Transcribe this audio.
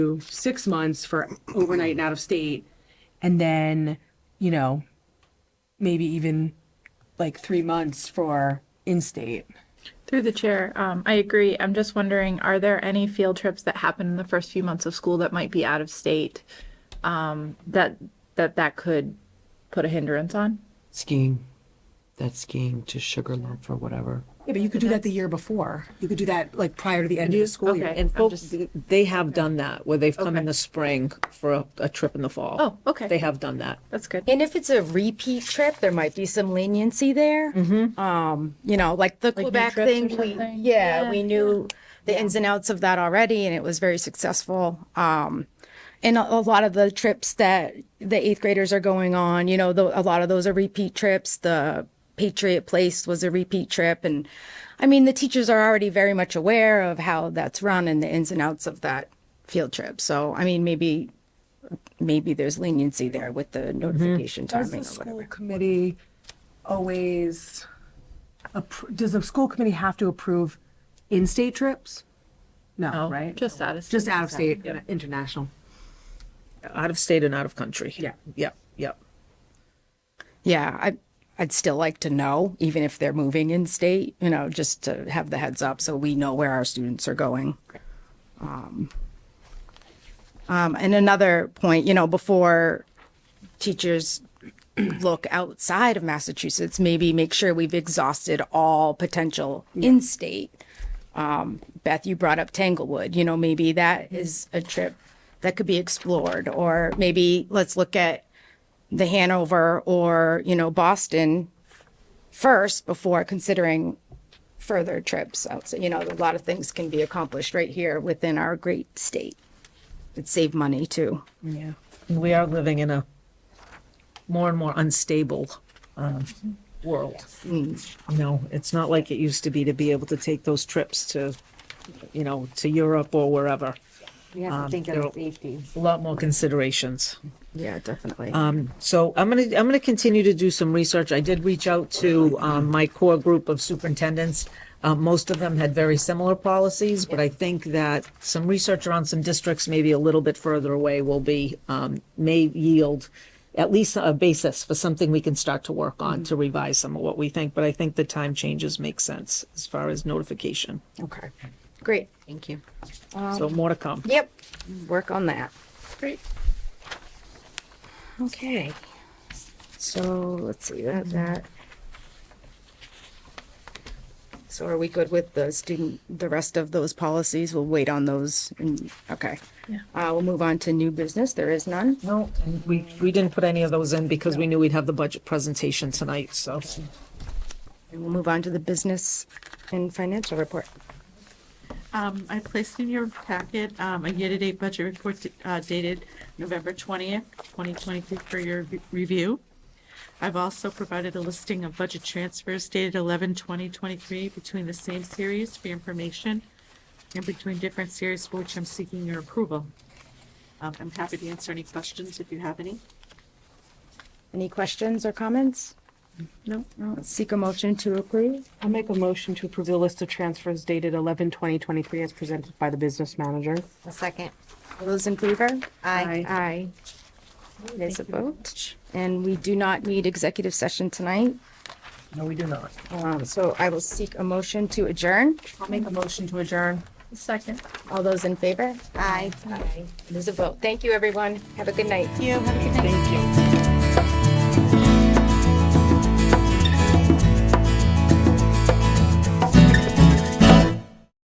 six months for overnight and out of state, and then, you know, maybe even like three months for in state. Through the chair, um, I agree. I'm just wondering, are there any field trips that happen in the first few months of school that might be out of state? Um, that, that, that could put a hindrance on? skiing. That skiing to Sugarloaf or whatever. Yeah, but you could do that the year before. You could do that like prior to the end of the school year. Okay. And I'm folks, just- Oh, they have done that, where they've come in Okay. the spring for a, a trip in the fall. Oh, okay. They have done that. That's good. And if it's a repeat trip, there might be some leniency there. Mm-hmm. Um, you know, like the Quebec trips or thing, we, yeah, something? we knew the ins and outs of that already, and it was very successful. Um, and a, a lot of the trips that the eighth graders are going on, you know, tho- a lot of those are repeat trips. The Patriot Place was a repeat trip, and I mean, the teachers are already very much aware of how that's run and the ins and outs of that field trip. So, I mean, maybe maybe there's leniency there with the notification Does timing the or school whatever. committee always, appro- does the school committee have to approve in-state trips? No, right? Oh, Just out of. Just out of state, international. Out of state and out of country. Yeah. Yep, yep. Yeah, I, I'd still like to know, even if they're moving in state, you know, just to have the heads up so we know where our students are going. Um, um, and another point, you know, before teachers look outside of Massachusetts, maybe make sure we've exhausted all potential in state. Um, Beth, you brought up Tanglewood. You know, maybe that is a trip that could be explored, or maybe let's look at the Hanover or, you know, Boston first before considering further trips. Outside. You know, a lot of things can be accomplished right here within our great state. It'd save money too. Yeah. We are living in a more and more unstable, um, world. You know, it's not like it used to be to be able to take those trips to, you know, to Europe or wherever. We have to think there Um, are- of safety. A lot more considerations. Yeah, definitely. Um, So I'm gonna, I'm gonna continue to do some research. I did reach out to, um, my core group of superintendents. Uh, most of them had very similar policies, but I think that some research around some districts maybe a little bit further away will be, um, may yield at least a basis for something we can start to work on to revise some of what we think, but I think the time changes make sense as far as notification. okay. Great. Thank you. So more to come. Yep. Work on that. Great. Okay. So let's see that that. So are we good with the student, the rest of those policies? We'll wait on those. and- Okay. Yeah. Uh, we'll move on to new business. There is none. No, and we, we didn't put any of those in because we knew we'd have the budget presentation tonight, so. And we'll move on to the business and financial report. Um, I placed in your packet, um, a year-to-date budget report, uh, dated November twentieth, twenty twenty-three for your re- review. I've also provided a listing of budget transfers dated 11-20-23 between the same series for your information and between different series for which I'm seeking your approval. Um, I'm happy to answer any questions if you have any. Any questions or comments? No. Let's Seek a motion to approve. I'll make a motion to approve the list of transfers dated 11-20-23 as presented by the business manager. A second. All those in favor? Aye. Aye. There's a vote. And we do not need executive session tonight. No, we do not. Um, so I will seek a motion to adjourn. I'll make a motion to adjourn. Second. All those in favor? Aye. Aye. There's a vote. Thank you, everyone. Have a good night. You have a good night. Thank you.